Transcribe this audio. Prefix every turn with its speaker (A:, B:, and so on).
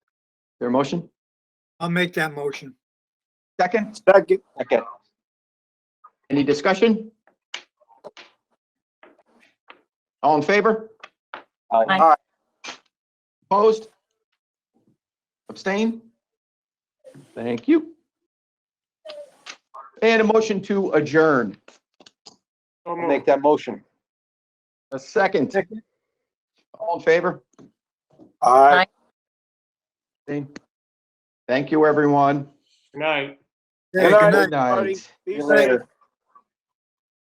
A: There a motion?
B: I'll make that motion.
A: Second?
C: Second.
A: Second. Any discussion? All in favor?
D: Aye.
A: Opposed? Abstain? Thank you. And a motion to adjourn.
C: I'll Make that motion.
A: A second. All in favor?
C: Aye.
A: Abstain? Thank you, everyone.
E: Good night.
B: Hey,
C: Good night.
A: Good night.
C: Be safe.